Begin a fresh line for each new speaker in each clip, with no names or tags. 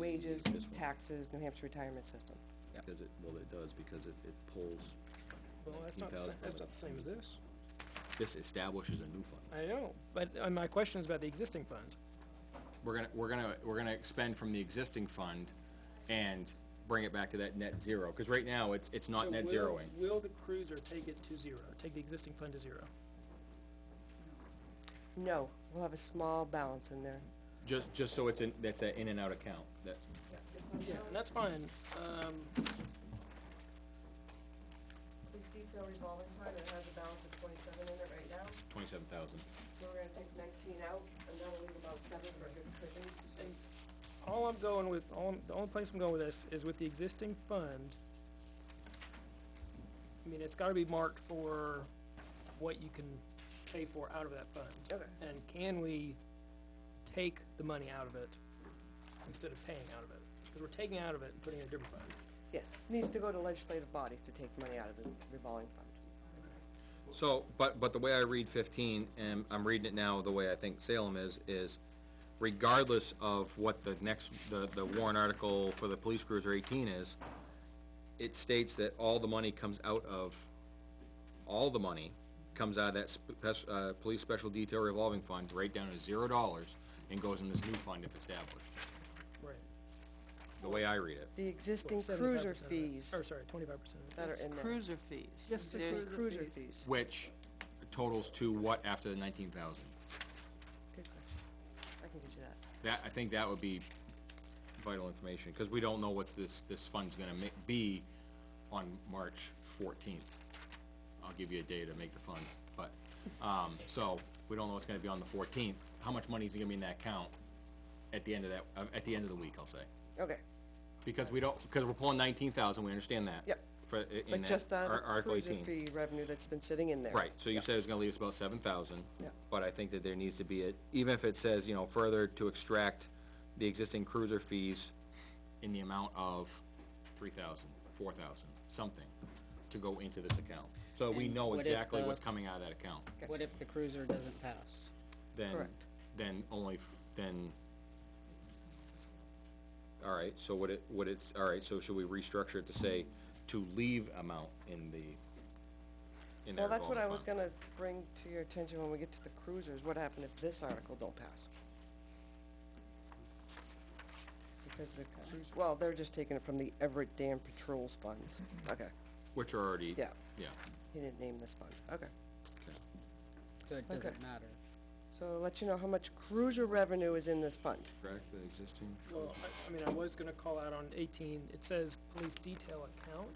wages,
this one.
taxes, New Hampshire retirement system.
Because it, well, it does, because it, it pulls,
Well, that's not, the sa-
19,000
that's not the same as this.
this establishes a new fund.
I know, but, uh my question is about the existing fund.
We're gonna, we're gonna, we're gonna expend from the existing fund and bring it back to that net zero, cause right now, it's, it's
So
not net
will-
zeroing.
Will the cruiser take it to zero, take the existing fund to zero?
No, we'll have a small balance in there.
Just, just so it's in, that's that in and out account, that,
Yeah, and that's fine, um,
Receipts are revolving fund, it has a balance of twenty-seven in it right now,
twenty-seven thousand.
so we're gonna take nineteen out, and then we'll leave about seven for a good cushion.
and all I'm going with, all, I'm- the only place I'm going with this is with the existing fund. I mean, it's gotta be marked for what you can pay for out of that fund.
Okay.
And can we take the money out of it instead of paying out of it? Because we're taking out of it and putting it in a different fund.
Yes, needs to go to legislative body to take money out of the revolving fund.
So, but, but the way I read fifteen, and I'm reading it now the way I think Salem is, is regardless of what the next, the, the warrant article for the police cruiser eighteen is, it states that all the money comes out of, all the money comes out of that spec, uh, police special detail revolving fund, right down to zero dollars, and goes in this new fund if established,
Right.
the way I read it.
The existing
75%
cruiser
of it.
fees
Or, sorry, twenty-five percent of it.
that are
It's
in there.
cruiser fees.
Just
There's-
the cruiser fees.
Which totals to what after the nineteen thousand?
Good question. I can get you that.
That, I think that would be vital information, because we don't know what this, this fund's gonna ma- be on March fourteenth. I'll give you a day to make the fund, but, um, so, we don't know what's gonna be on the fourteenth, how much money's gonna be in that account at the end of that, uh, at the end of the week, I'll say.
Okay,
Because we don't, because we're pulling nineteen thousand, we understand that.
Yep.
For, i- in
but
that
just on
Ar-
the
Article
cruiser
18.
fee revenue that's been sitting in there.
Right, so you said it's gonna leave us about seven thousand.
Yeah.
But I think that there needs to be, a even if it says, you know, further to extract the existing cruiser fees in the amount of three thousand, four thousand, something, to go into this account. So we
And
know
what if
exactly
the-
what's coming out of that account,
What if the cruiser doesn't pass?
then,
Correct.
then only, f- then. All right, so what it, what it's, all right, so should we restructure it to say to leave amount in the, in that
Well, that's what
revolving
I was
fund?
gonna bring to your attention when we get to the cruisers, what happened if this article don't pass? Because the cruise, well, they're just taking it from the Everett Dam Patrol's funds,
Mm-hmm.
okay,
Which are already.
Yeah.
Yeah.
he didn't name this fund, okay.
So it
Okay.
doesn't matter.
So I'll let you know how much cruiser revenue is in this fund,
Correct, the existing?
Well, I, I mean, I was gonna call out on eighteen, it says police detail account,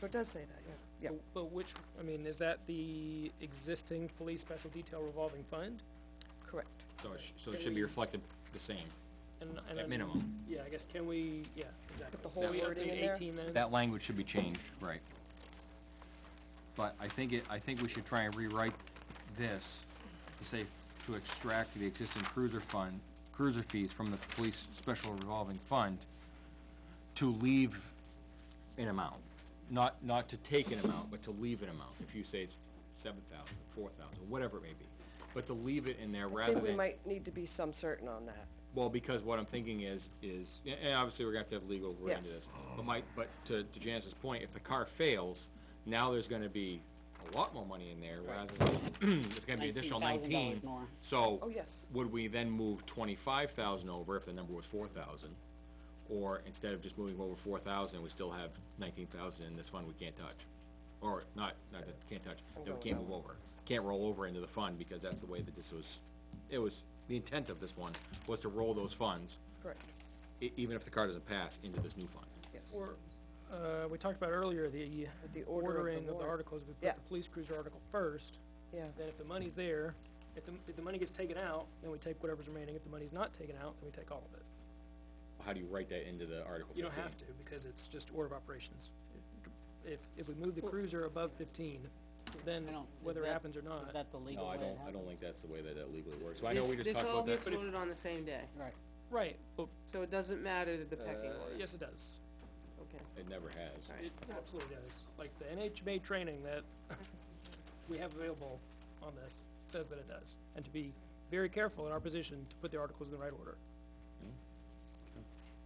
so it does say that, yeah, yeah,
but, but which, I mean, is that the existing police special detail revolving fund?
correct.
So it, sh- so it should be reflected the same,
And- and
at
I'm-
minimum.
Yeah, I guess, can we, yeah, exactly.
the whole
Can we
wording
update
in there?
Eighteen then?
That language should be changed, right. But I think it, I think we should try and rewrite this to say, to extract the existing cruiser fund, cruiser fees from the police special revolving fund to leave an amount, not, not to take an amount, but to leave an amount. If you say it's seven thousand, four thousand, whatever it may be, but to leave it in there
I
rather
think
than.
we might need to be some certain on that,
Well, because what I'm thinking is, is, and- and obviously we're gonna have to have legal, we're into
Yes.
this. But my, but to, to Janice's point, if the car fails, now there's gonna be a lot more money in there rather than, it's gonna be additional nineteen.
$19,000 more.
So.
Oh, yes.
Would we then move twenty-five thousand over if the number was four thousand? Or instead of just moving over four thousand, we still have nineteen thousand in this fund we can't touch? Or not, not that, can't touch, that we can't move over, can't roll over into the fund because that's the way that this was, it was, the intent of this one was to roll those funds,
correct,
e- even if the car doesn't pass, into this new fund.
yes.
Or, uh, we talked about earlier, the
the order of the
ordering of the
warrant.
articles, we
Yeah.
put the police cruiser article first,
Yeah,
then if the money's there, if the, if the money gets taken out, then we take whatever's remaining, if the money's not taken out, then we take all of it.
How do you write that into the Article
You
fifteen?
don't have to, because it's just order of operations. If, if we move the cruiser above fifteen, then
I don't. is
whether it
that-
happens or not.
Is that the legal
No, I
way it
don't, I
happens?
don't think that's the way that it legally works, so I know we
This-
just talked about
This all
that.
gets voted on the same day,
Right.
Right, but,
so it doesn't matter that the pecking
Uh,
order,
yes, it does.
okay.
It never has.
Sorry.
It absolutely does. Like the NHMA training that we have available on this says that it does. And to be very careful in our position to put the articles in the right order.